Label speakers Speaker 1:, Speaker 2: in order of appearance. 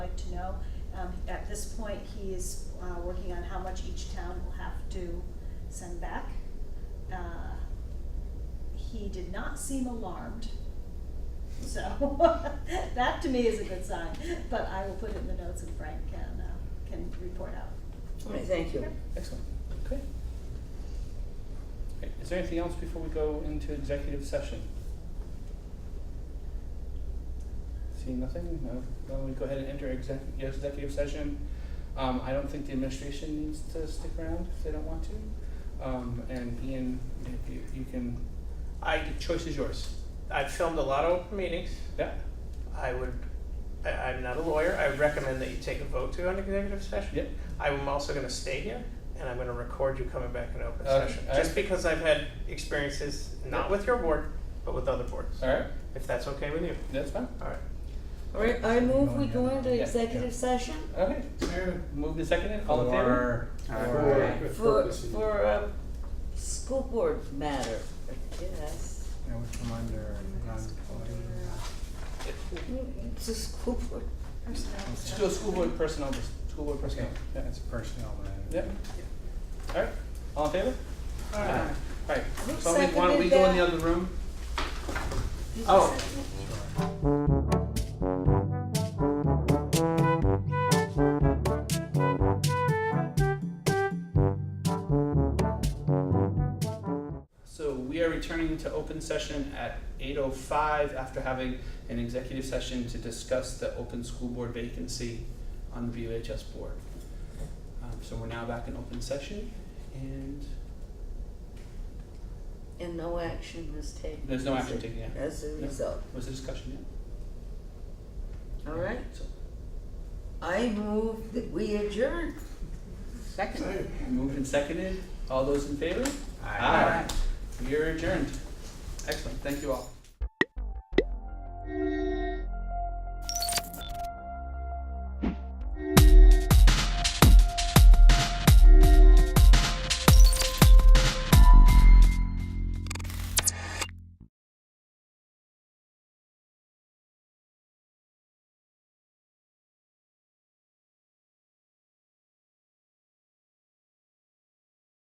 Speaker 1: Um, at this point, he is, uh, working on how much each town will have to send back. Uh, He did not seem alarmed, so that to me is a good sign, but I will put it in the notes and Frank can, uh, can report out.
Speaker 2: All right, thank you.
Speaker 3: Excellent, okay. Okay, Is there anything else before we go into executive session? Seeing nothing, no, then we go ahead and enter exec- yes, executive session. Um, I don't think the administration needs to stick around if they don't want to. Um, and Ian, if you, you can,
Speaker 4: I, the choice is yours. I've filmed a lot of open meetings.
Speaker 3: yeah,
Speaker 4: I would, I, I'm not a lawyer. I recommend that you take a vote to an executive session.
Speaker 3: yeah,
Speaker 4: I'm also gonna stay here and I'm gonna record you coming back in open
Speaker 3: Okay,
Speaker 4: session.
Speaker 3: all
Speaker 4: Just
Speaker 3: right.
Speaker 4: because I've had experiences, not with your board, but with other boards,
Speaker 3: all right,
Speaker 4: if that's okay with you.
Speaker 3: that's fine,
Speaker 4: All right.
Speaker 2: All right, I move we go into
Speaker 3: Yeah,
Speaker 2: executive session
Speaker 3: okay. Move the second in, all in favor?
Speaker 5: For-
Speaker 3: Alright.
Speaker 5: for-
Speaker 2: for, for a school board matter, yes.
Speaker 5: Yeah, we come under non-public.
Speaker 2: It's a school board,
Speaker 1: Personnel.
Speaker 3: School, school board personnel, just school board personnel, yeah,
Speaker 5: That's personnel
Speaker 3: yeah.
Speaker 5: matter.
Speaker 3: All right, all in favor?
Speaker 4: Aye.
Speaker 3: All right,
Speaker 2: Who
Speaker 3: so we- why don't
Speaker 2: seconded
Speaker 3: we go in the
Speaker 2: that?
Speaker 3: other room?
Speaker 4: Oh.
Speaker 5: Sure.
Speaker 3: So we are returning to open session at eight oh five after having an executive session to discuss the open school board vacancy on the BUHS board. Um, so we're now back in open session and
Speaker 2: and no action was taken.
Speaker 3: There's no
Speaker 2: as
Speaker 3: action
Speaker 2: a-
Speaker 3: taken, yeah.
Speaker 2: As a
Speaker 3: No.
Speaker 2: result,
Speaker 3: was the discussion yet?
Speaker 2: all right,
Speaker 3: So
Speaker 2: I move that we adjourn. Second.
Speaker 3: moved and seconded, all those in favor?
Speaker 5: Aye.
Speaker 3: We are adjourned. Excellent, thank you all.